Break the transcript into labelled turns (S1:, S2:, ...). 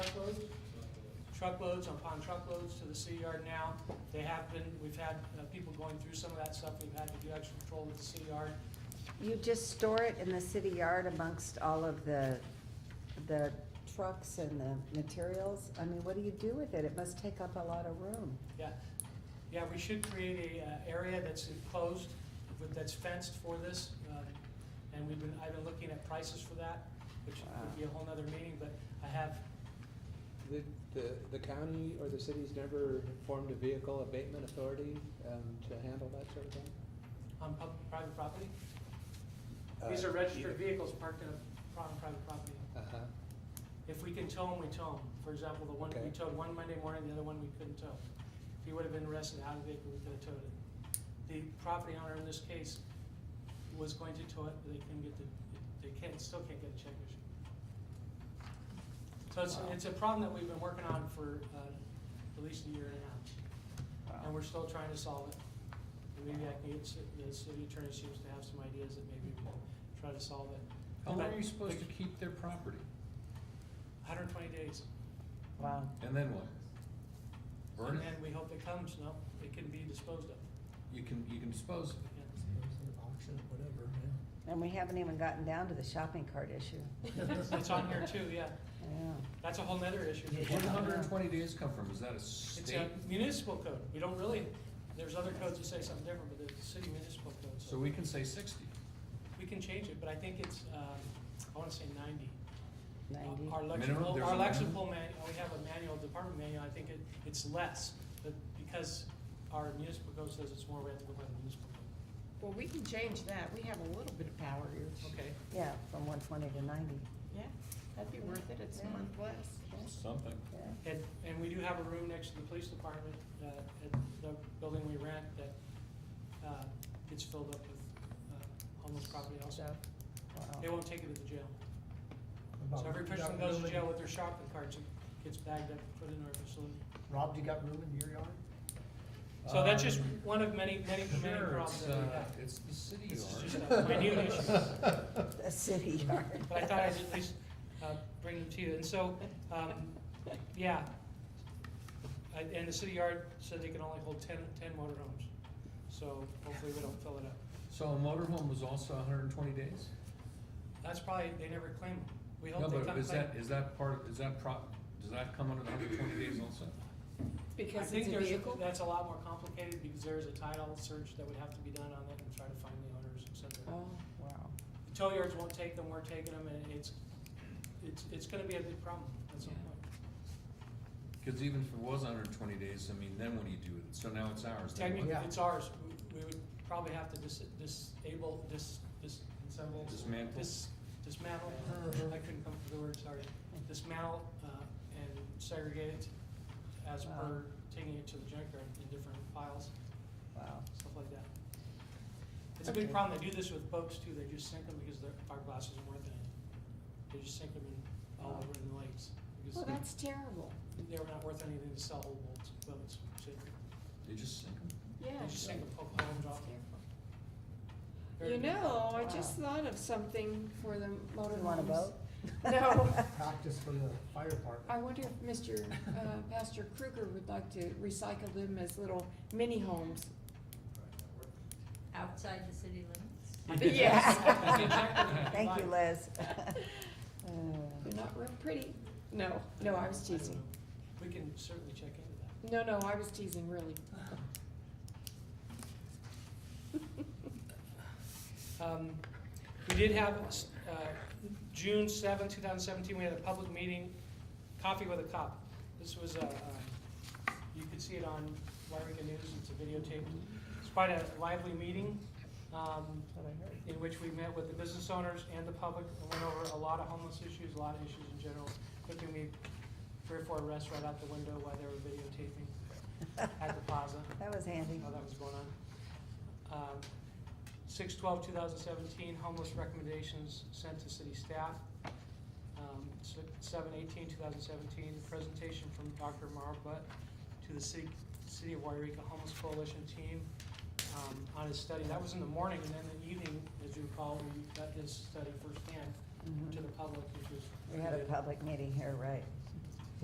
S1: truckloads upon truckloads to the city yard now. They have been, we've had uh, people going through some of that stuff. We've had to do extra patrol with the city yard.
S2: You just store it in the city yard amongst all of the, the trucks and the materials? I mean, what do you do with it? It must take up a lot of room.
S1: Yeah, yeah, we should create a uh, area that's enclosed, with- that's fenced for this. uh, And we've been, I've been looking at prices for that, which would be a whole nother meeting, but I have,
S3: The, the, the county or the city's never formed a vehicle abatement authority, um, to handle that sort of thing?
S1: on um, pub- private property. These
S3: Uh,
S1: are registered
S3: either.
S1: vehicles parked in a, on private property.
S3: Uh-huh,
S1: If we can tow them, we tow them. For example, the one, we
S3: Okay.
S1: towed one Monday morning, the other one we couldn't tow. If he would have been arrested out of vehicle, we could have towed it. The property owner in this case was going to tow it, but they couldn't get the, they can't, still can't get a check issued. So it's,
S3: Wow.
S1: it's a problem that we've been working on for, uh, at least a year and a half. And we're still trying to solve it. And Maybe I can get, ci- the city attorney seems to have some ideas that maybe we can try to solve it.
S4: How long
S1: But-
S4: are you supposed to keep their property?
S1: 120 days.
S2: Wow.
S4: And then what? Burn
S1: And then
S4: it?
S1: we hope it comes, no, it can be disposed of.
S4: You can, you can dispose of it.
S1: Yeah.
S5: Auction, whatever,
S2: And we haven't even gotten down to the shopping cart issue.
S5: yeah.
S1: It's on here too, yeah.
S2: Yeah.
S1: That's a whole nother issue.
S4: Where did hundred and twenty days come from? Is that a
S1: It's
S4: state?
S1: a municipal code. We don't really, there's other codes that say something different, but there's the city municipal code.
S4: So we can say sixty.
S1: We can change it, but I think it's, um, I want to say 90.
S2: Ninety.
S1: Our
S4: Minimum?
S1: lexical,
S4: There's
S1: our
S4: a minimum?
S1: lexical man, we have a manual, department manual, I think it, it's less, but because our municipal code says it's more, we have to go by the municipal code.
S6: Well, we can change that, we have a little bit of power here.
S1: Okay.
S2: Yeah, from one twenty to ninety.
S6: Yeah, that'd be worth it, it's a
S2: Yeah.
S6: month less.
S4: Something.
S2: Yeah.
S1: And, and we do have a room next to the police department, uh, at the building we rent that, uh, gets filled up with, uh, homeless property also.
S6: So,
S1: They
S2: Wow.
S1: won't take it to the jail. So every person goes to jail with their shopping carts and gets bagged up and put in our facility.
S5: Rob, you got room in your yard?
S1: So that's just
S4: Um,
S1: one of many, many, many
S4: Sure,
S1: problems
S4: it's,
S1: that we
S4: uh,
S1: have.
S4: it's the city
S1: This is
S4: yard.
S1: just a minute issue.
S2: A city yard.
S1: But I thought I'd at least uh, bring them to you. And so, um, yeah. I- And the city yard said they can only hold 10 10 motorhomes. So hopefully we don't fill it up.
S4: So a motorhome was also hundred and twenty days?
S1: That's probably, they never claim them. We
S4: No,
S1: hope they
S4: but
S1: come
S4: is
S1: claim.
S4: that, is that part, is that pro, does that come under the hundred and twenty days also?
S1: I
S6: Because
S1: think
S6: it's a
S1: there's,
S6: vehicle?
S1: that's a lot more complicated because there is a title search that would have to be done on it and try to find the owners, et
S2: Oh,
S1: cetera.
S2: wow.
S1: The tow yards won't take them, we're taking them, and it's, it's, it's gonna be a big problem at some
S4: Yeah.
S1: point.
S4: Cause even if it was hundred and twenty days, I mean, then what do you do with it? So now it's ours. then what?
S1: Technically,
S5: Yeah.
S1: it's ours, we, we would probably have to dis- disable, dis, dis, disassemble.
S4: Dismantle.
S1: dis- Dismantle,
S5: Uh-huh.
S1: I couldn't come up with the word, sorry, dismantle, uh, and segregate it as
S2: Wow.
S1: per taking it to the junkyard in different piles,
S2: Wow.
S1: stuff like that. It's a big
S2: Okay.
S1: problem, they do this with boats too, they just sink them because their fiberglass isn't worth anything. They just sink them in, all
S2: Wow.
S1: over in the lakes, because
S6: Well, that's terrible.
S1: they were not worth anything to sell old boats, boats, so
S4: They just sink 'em?
S6: Yeah.
S1: they just sink them, poke a hole and drop them.
S6: You know, I
S2: Wow.
S6: just thought of something for the motor
S2: You want a
S6: homes.
S2: boat?
S6: No.
S5: Practice for the fire
S6: I
S5: department.
S6: wonder if Mr. uh, Pastor Kruger would like to recycle them as little mini homes.
S7: Outside the city limits?
S6: Yes.
S2: Thank you, Liz. Uh,
S6: They're not real pretty. No, no, I was teasing.
S1: We can certainly check into that.
S6: No, no, I was teasing, really.
S1: Um, We did have, uh, June seventh, two thousand seventeen, we had a public meeting, Coffee with a Cop. This was a, uh, you could see it on Wairega News, it's a videotape. It's quite a lively meeting, um, in which we met with the business owners and the public and went over a lot of homeless issues, a lot of issues in general. Took me three or four arrests right out the window while they were videotaping at the plaza.
S2: That was handy.
S1: how that was going on. Um, 6/12/2017 homeless recommendations sent to city staff. Um, s- 7/18/2017 presentation from Dr. Marv Butt to the city, city of Wairika Homeless Coalition team, um, on his study. That was in the morning, and then in the evening, as you recall, we got his study firsthand
S2: Mhm.
S1: to the public, which was.
S2: We had a public meeting here, right?